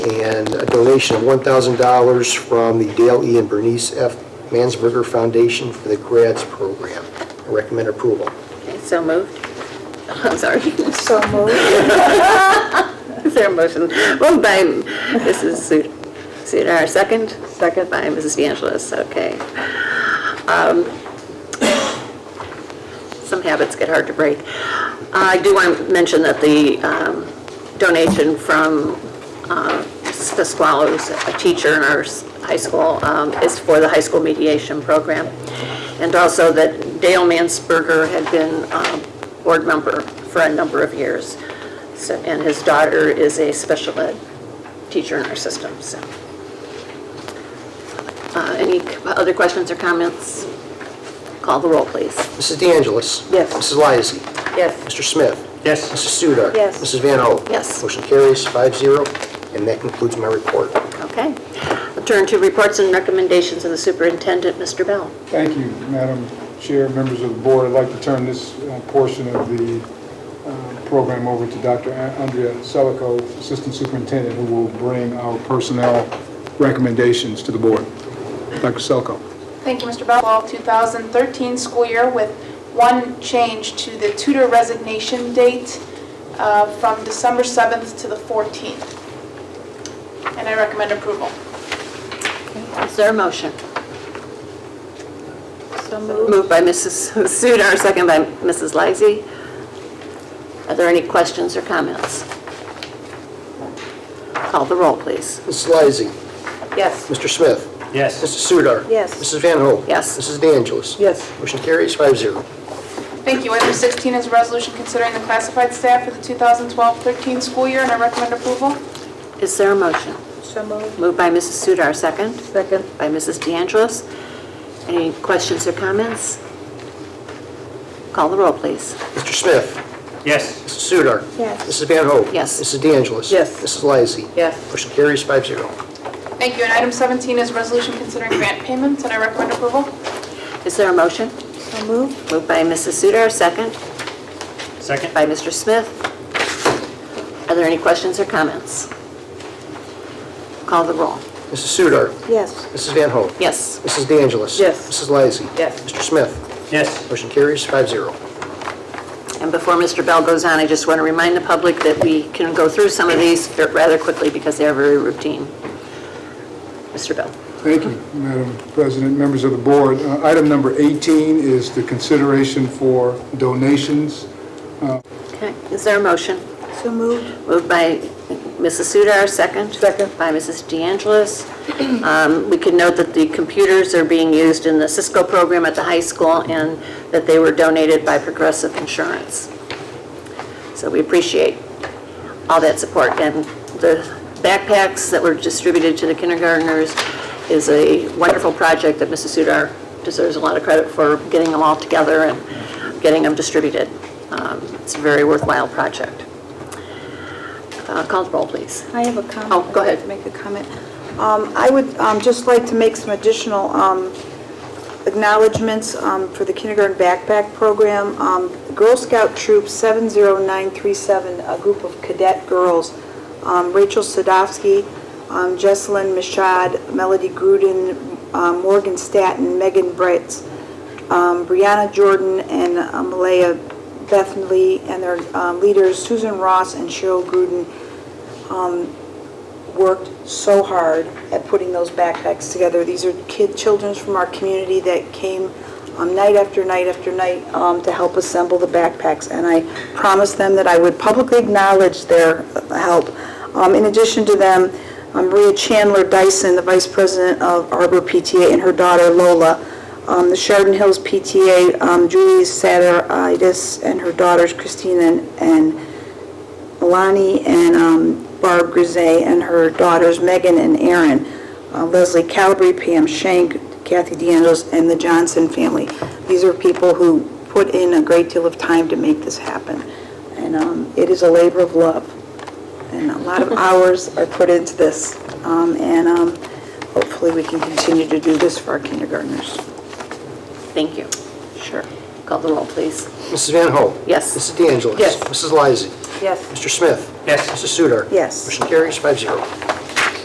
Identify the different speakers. Speaker 1: and a donation of $1,000 from the Dale E. and Bernice F. Mansberger Foundation for the grads program. I recommend approval.
Speaker 2: Okay, So moved. I'm sorry.
Speaker 3: So moved.
Speaker 2: Is there a motion? Moved by Mrs. Su- Sudar, second? Second. By Mrs. De Angelis, okay. Um, Some habits get hard to break. I do want to mention that the um, donation from uh, Mrs. Pasquale, who's a teacher in our s- high school, um, is for the high school mediation program. And also that Dale Mansberger had been um, board member for a number of years. So- And his daughter is a special ed teacher in our system, so. Uh, Any c- other questions or comments? Call the roll, please.
Speaker 1: Mrs. De Angelis.
Speaker 2: Yes.
Speaker 1: Mrs. Lysy.
Speaker 2: Yes.
Speaker 1: Mr. Smith?
Speaker 4: Yes.
Speaker 1: Mrs. Sudar?
Speaker 3: Yes.
Speaker 1: Mrs. Van Hoen?
Speaker 2: Yes.
Speaker 1: Motion carries five zero, and that concludes my report.
Speaker 2: Okay. We'll Turn to reports and recommendations of the superintendent, Mr. Bell.
Speaker 5: Thank you, Madam Chair, members of the board. I'd like to turn this uh, portion of the uh, program over to Dr. An- Andrea Selico, Assistant Superintendent, who will bring our personnel recommendations to the board. Dr. Selico.
Speaker 3: Thank you, Mr. Bell. Fall 2013 school year with one change to the tutor resignation date uh, from December 7th to the 14th. And I recommend approval.
Speaker 2: Is there a motion? Moved by Mrs. Sudar, second by Mrs. Lysy. Are there any questions or comments? Call the roll, please.
Speaker 1: Mrs. Lysy.
Speaker 2: Yes.
Speaker 1: Mr. Smith?
Speaker 4: Yes.
Speaker 1: Mrs. Sudar?
Speaker 2: Yes.
Speaker 1: Mrs. Van Hoen?
Speaker 2: Yes.
Speaker 1: Mrs. De Angelis?
Speaker 2: Yes.
Speaker 1: Motion carries five zero.
Speaker 3: Thank you. Item 16 is a resolution considering the classified staff for the 2012-13 school year, and I recommend approval.
Speaker 2: Is there a motion? So moved. Moved by Mrs. Sudar, second. Second. By Mrs. De Angelis. Any questions or comments? Call the roll, please.
Speaker 1: Mr. Smith?
Speaker 4: Yes.
Speaker 1: Mrs. Sudar?
Speaker 3: Yes.
Speaker 1: Mrs. Van Hoen?
Speaker 2: Yes.
Speaker 1: Mrs. De Angelis?
Speaker 2: Yes.
Speaker 1: Mrs. Lysy.
Speaker 2: Yes.
Speaker 1: Motion carries five zero.
Speaker 3: Thank you. And item 17 is a resolution considering grant payments, and I recommend approval.
Speaker 2: Is there a motion? So moved. Moved by Mrs. Sudar, second.
Speaker 4: Second?
Speaker 2: by Mr. Smith. Are there any questions or comments? Call the roll.
Speaker 1: Mrs. Sudar?
Speaker 2: Yes.
Speaker 1: Mrs. Van Hoen?
Speaker 2: Yes.
Speaker 1: Mrs. De Angelis?
Speaker 2: Yes.
Speaker 1: Mrs. Lysy.
Speaker 2: Yes.
Speaker 1: Mr. Smith?
Speaker 4: Yes.
Speaker 1: Motion carries five zero.
Speaker 2: And before Mr. Bell goes on, I just want to remind the public that we can go through some of these rather quickly because they are very routine. Mr. Bell.
Speaker 5: Thank you, Madam President, members of the board. Uh, Item number 18 is the consideration for donations.
Speaker 2: Okay, is there a motion? So moved. Moved by Mrs. Sudar, second. Second. By Mrs. De Angelis. Um, We can note that the computers are being used in the Cisco program at the high school and that they were donated by Progressive Insurance. So we appreciate all that support. And the backpacks that were distributed to the kindergarteners is a wonderful project that Mrs. Sudar deserves a lot of credit for getting them all together and getting them distributed. Um, It's a very worthwhile project. Uh, Call the roll, please.
Speaker 6: I have a comment.
Speaker 2: Oh, go ahead.
Speaker 6: I'd like to Make a comment. Um, I would um, just like to make some additional um, acknowledgements um, for the kindergarten backpack program. Um, Girl Scout Troop 70937, a group of cadet girls, um, Rachel Sadowski, um, Jesselyn Mashad, Melody Gruden, um, Morgan Staton, Megan Britz, um, Brianna Jordan, and um, Malaya Bethnally, and their um, leaders Susan Ross and Cheryl Gruden worked so hard at putting those backpacks together. These are kid, children from our community that came um, night after night after night um, to help assemble the backpacks, and I promised them that I would publicly acknowledge their uh, help. Um, In addition to them, um, Maria Chandler Dyson, the vice president of Arbor PTA, and her daughter Lola, um, the Sheridan Hills PTA, um, Julie Satteritis, and her daughters Christina and Alani and um, Barb Grisay and her daughters Megan and Erin, uh, Leslie Calabri, Pam Shank, Kathy DeAngelis, and the Johnson family. These are people who put in a great deal of time to make this happen. And um, it is a labor of love. And a lot of hours are put into this. Um, And um, hopefully, we can continue to do this for our kindergartners.
Speaker 2: Thank you. Sure. Call the roll, please.
Speaker 1: Mrs. Van Hoen?
Speaker 2: Yes.
Speaker 1: Mrs. De Angelis?
Speaker 2: Yes.
Speaker 1: Mrs. Lysy.
Speaker 6: Yes.
Speaker 1: Mr. Smith?
Speaker 4: Yes.
Speaker 1: Mrs. Sudar?
Speaker 6: Yes.
Speaker 1: Motion carries five zero.